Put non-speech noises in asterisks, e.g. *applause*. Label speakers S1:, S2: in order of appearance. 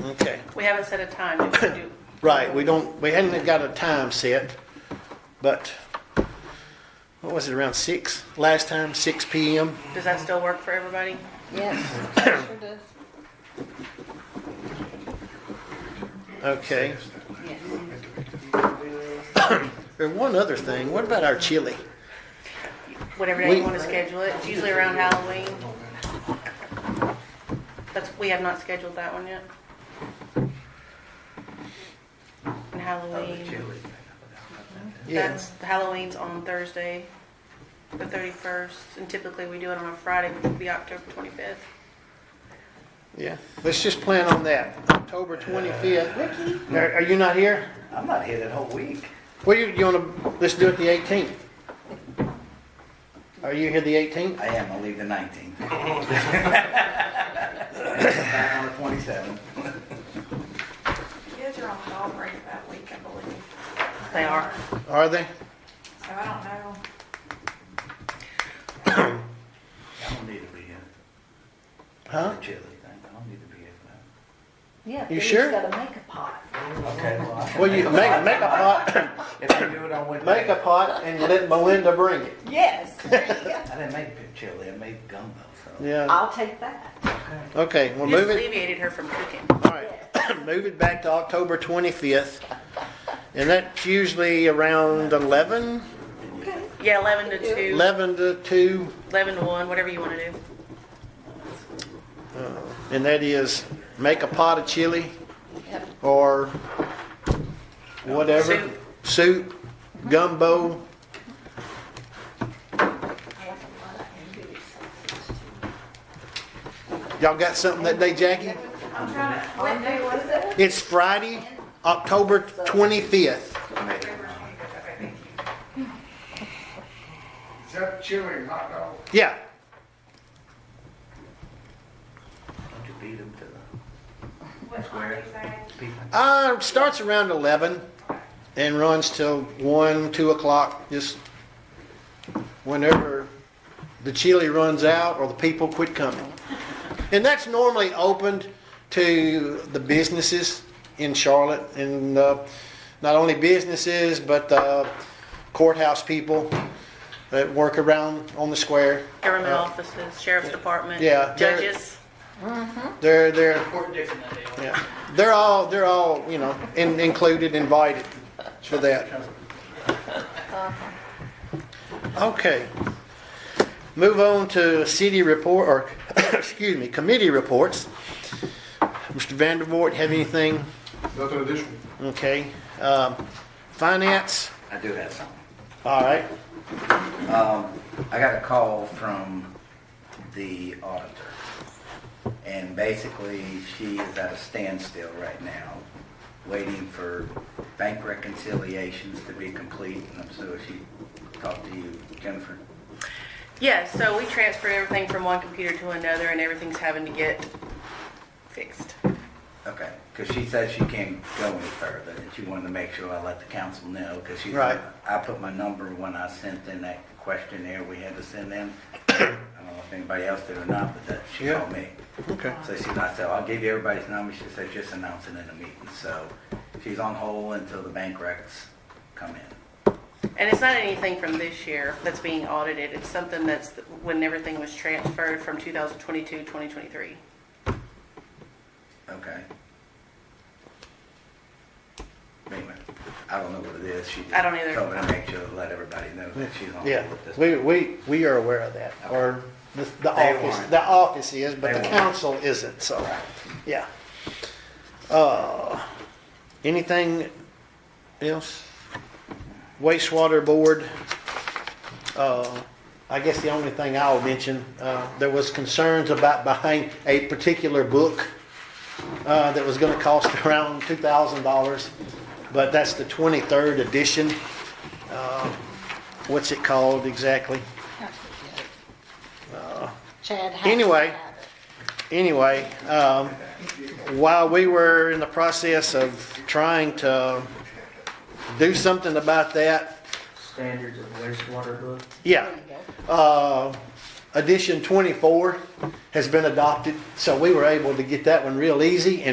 S1: Okay.
S2: We haven't set a time. We can do-
S1: Right, we don't, we hadn't got a time set, but what was it, around six? Last time, six PM?
S2: Does that still work for everybody? *coughs*
S3: Yes, sure does.
S1: Okay.
S3: Yes.
S1: There's one other thing. What about our chili?
S2: Whatever day
S1: We-
S2: you want to schedule it. It's usually around Halloween. That's, we have not scheduled that one yet. And Halloween,
S1: Yeah.
S2: that's, Halloween's on Thursday, the thirty-first, and typically we do it on a Friday, which would be October twenty-fifth.
S1: Yeah. Let's just plan on that. October 25th.
S4: Ricky?
S1: Are, are you not here?
S4: I'm not here that whole week.
S1: Well, you, you wanna, let's do it the 18th. Are you here the 18th?
S4: I am, I'll leave the 19th. Back on the 27th.
S5: Kids are on dog break that week, I believe,
S2: They are.
S1: Are they?
S5: so I don't know.
S4: I don't need to be here for
S1: Huh?
S4: the chili thing. I don't need to be here for
S3: Yeah.
S1: You
S3: they just
S1: sure?
S3: gotta make a pot.
S4: that. Okay, well, I can
S1: Well, you, make, make a pot, *coughs*
S4: If I do it on Wednesday.
S1: make a pot and let Melinda bring it.
S3: Yes, *laughs* there you go.
S4: I didn't make big chili, I made gumbo, so.
S1: Yeah.
S3: I'll take that.
S1: Okay, we'll
S2: You just
S1: move it.
S2: alleviated her from cooking.
S1: All right, *coughs* move it back to October 25th. And that's usually around 11,
S3: Okay.
S2: Yeah, eleven to two,
S1: 11 to 2,
S2: eleven to one, whatever you want to do.
S1: and that is make a pot of chili
S3: Yep.
S1: or whatever.
S2: Soup.
S1: Soup, gumbo,
S3: I like a lot of andouille sausage,
S1: y'all got something that day, Jackie?
S5: I'm trying to,
S3: too.
S5: what day was it?
S1: It's Friday, October 25th.
S6: Is that chili and hot dog?
S1: Yeah,
S4: Don't you beat him to the
S5: What
S4: Square.
S5: Tuesday?
S4: people?
S1: uh, starts around 11 and runs till 1, 2 o'clock, just whenever the chili runs out or the people quit coming. And that's normally opened to the businesses in Charlotte and uh, not only businesses, but uh, courthouse people that work around on the square.
S2: Government
S1: Uh,
S2: offices, sheriff's department,
S1: Yeah, there-
S2: judges.
S1: They're, they're,
S7: Fort Dixon that day. wasn't it?
S1: Yeah, they're all, they're all, you know, in- included, invited for that. Okay. Move on to city report, or, *coughs* excuse me, committee reports. Mr. Vandervoort, have anything?
S6: Nothing additional.
S1: Okay. Um, Finance?
S4: I do have something.
S1: All right.
S4: I got a call from the auditor, and basically she is at a standstill right now, waiting for bank reconciliations to be complete, and I'm sure she talked to you, Jennifer.
S2: Yeah, so we transferred everything from one computer to another and everything's having to get fixed.
S4: Okay, because she said she can't go any further, and she wanted to make sure I let the council know, because she.
S1: Right.
S4: I put my number when I sent in that questionnaire we had to send in. I don't know if anybody else did or not, but that, she
S1: Yeah.
S4: called me.
S1: Okay.
S4: So she, I said, I'll give you everybody's number. She said, just announce it in a meeting. So she's on hold until the bank recs come in.
S2: And it's not anything from this year that's being audited. It's something that's when everything was transferred from 2022, 2023.
S4: Okay. Anyway, I don't know what it is. She
S2: I don't either.
S4: told me to make sure to let everybody know that she's on
S1: Yeah,
S4: hold with this.
S1: we, we, we are aware of that, or the, the
S4: They
S1: office,
S4: weren't.
S1: the office is, but
S4: They
S1: the
S4: weren't.
S1: council isn't, so,
S4: Right.
S1: yeah. Uh, anything else? Wastewater board, uh, I guess the only thing I'll mention, uh, there was concerns about buying a particular book, uh, that was gonna cost *laughs* around two thousand dollars, but that's the twenty-third edition uh, what's it called exactly?
S3: Chad has to
S1: Anyway.
S3: have it.
S1: Anyway, um, while we were in the process of trying to do something about that,
S7: Standards of wastewater book.
S1: yeah, uh, edition 24 has been adopted, so we were able to get that one real easy, and